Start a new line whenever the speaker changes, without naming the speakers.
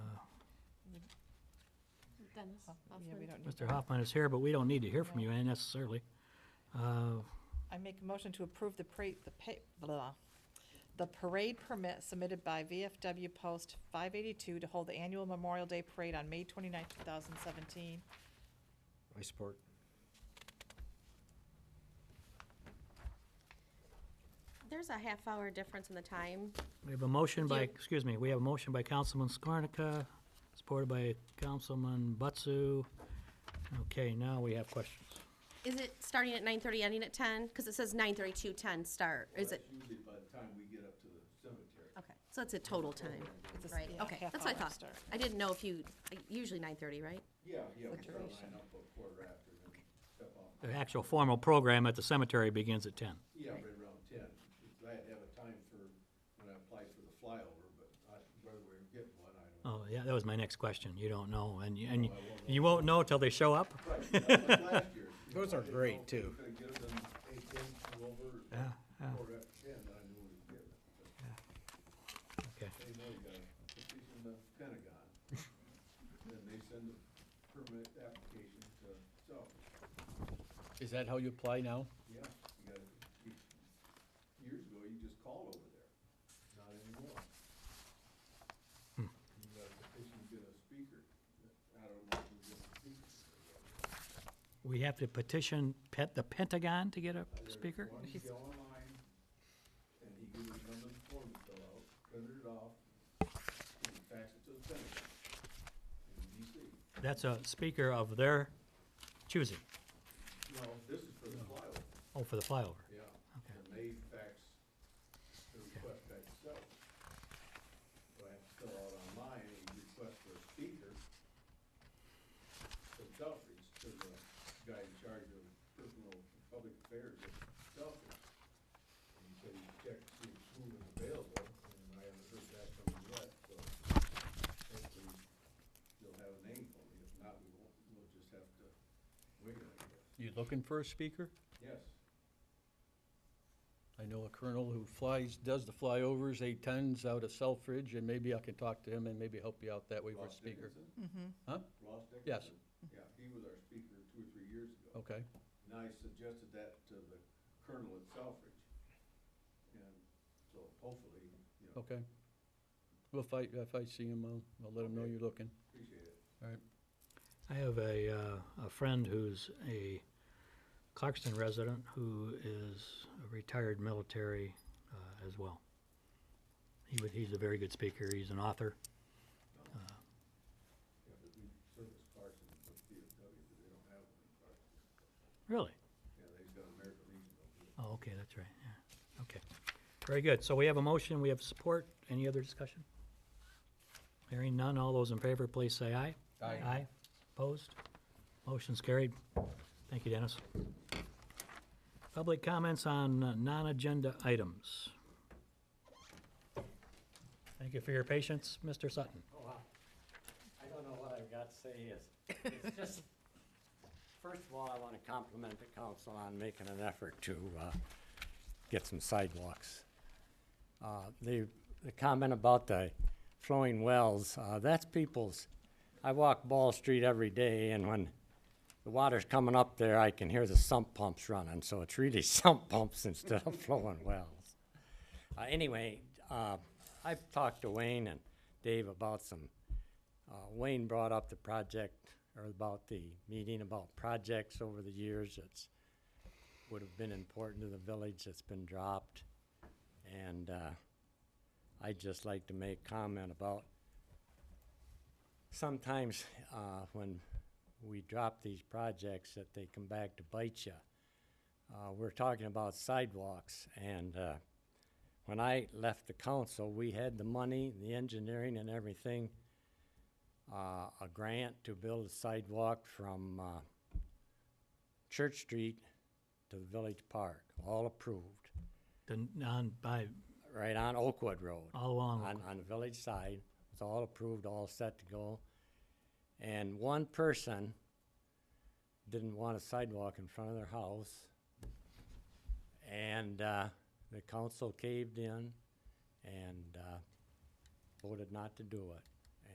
Dennis
Oh, Yeah, we
Hoffman.
don't need,
Mr. Hoffman is here, but we don't need to hear from you necessarily. Uh,
I make a motion to approve the parade, the pay, blah, the parade permit submitted by VFW Post five eighty-two to hold the annual Memorial Day Parade on May twenty-ninth, two thousand seventeen.
I support.
There's a half hour difference in the time.
We have a motion by,
you-
excuse me, we have a motion by Councilman Skornica, supported by Councilman Butsu. Okay, now we have questions.
Is it starting at nine thirty, ending at ten? Because it says nine thirty to ten start. Is it,
That's usually by the time we get up to the cemetery.
okay, so it's a total time,
It's a s-
right?
yeah,
Okay,
half
that's what I
hour
thought.
start.
I didn't know if you, usually nine thirty, right?
Yeah, yeah, we
The
start
duration.
line up a quarter after and step off.
The actual formal program at the cemetery begins at ten.
Yeah, right around ten. Because I had to have a time for, when I applied for the flyover, but I, whether we're getting one, I don't know.
Oh, yeah, that was my next question. You don't know, and, you- and you- you won't know till they show up?
Right, that was last year. You
Those
know, I
are
didn't
great,
know if we
too.
Could get them eight, ten, two over, or
Yeah, yeah.
quarter after ten, then I knew we would get it. But
Okay.
They know you gotta, if he's in the Pentagon, then they send a permit application to South.
Is that how you apply now?
Yeah, you gotta, you, years ago, you just called over there, not anymore. You gotta petition to get a speaker, I don't know if you get a speaker.
We have to petition pet, the Pentagon to get a
There's
speaker?
One, you go online, and he gives you number of forms to fill out, print it off, and fax it to the Pentagon, in DC.
That's a speaker of their choosing,
No, this is for the flyover,
oh, for the flyover.
yeah,
Okay.
and they fax the request back to South. So I have to fill out online a request for a speaker to Southbridge, to the guy in charge of personal public affairs at Southbridge. And he said he checked to see who was available, and I haven't heard that from him yet, so hopefully you'll have a name for me. If not, we won't, we'll just have to wait, I guess.
You looking for a speaker?
Yes,
I know a colonel who flies, does the flyovers, eight tons out of Selfridge, and maybe I can talk to him and maybe help you out that way with
Ross
a speaker.
Dickinson?
Huh?
Ross Dickinson?
Yes.
Yeah, he was our speaker two or three years ago.
Okay,
And I suggested that to the colonel at Southbridge. And so hopefully, you know,
okay. Well, if I, if I see him, I'll, I'll let him know
Okay.
you're looking.
appreciate it.
All right.
I have a, uh, a friend who's a Clarkston resident who is a retired military uh, as well. He would, he's a very good speaker. He's an author. Uh,
Yeah, but we service Carson with DFW, but they don't have one in Carson.
Really?
Yeah, they've got American Legion over there.
Oh, okay, that's right. Yeah. Okay. Very good. So we have a motion. We have support. Any other discussion? Hearing none. All those in favor, please say aye.
Aye.
Aye. Opposed? Motion's carried. Thank you, Dennis. Public comments on uh, non-agenda items. Thank you for your patience, Mr. Sutton.
Oh, wow. I don't know what I've got to say is, it's just, first of all, I want to compliment the council on making an effort to uh, get some sidewalks. Uh, The, the comment about the flowing wells, uh, that's people's, I walk Ball Street every day, and when the water's coming up there, I can hear the sump pumps running, so it's really sump pumps instead of flowing wells. Uh, anyway, uh, I've talked to Wayne and Dave about some, uh, Wayne brought up the project, or about the meeting about projects over the years that's, would have been important to the village that's been dropped. And, uh, I'd just like to make comment about sometimes, uh, when we drop these projects that they come back to bite you. Uh, we're talking about sidewalks and, uh, when I left the council, we had the money, the engineering and everything, uh, a grant to build a sidewalk from, uh, Church Street to the Village Park, all approved,
The non, by,
right on Oakwood Road
all along.
on, on the village side. It's all approved, all set to go. And one person didn't want a sidewalk in front of their house. And, uh, the council caved in and, uh, voted not to do it.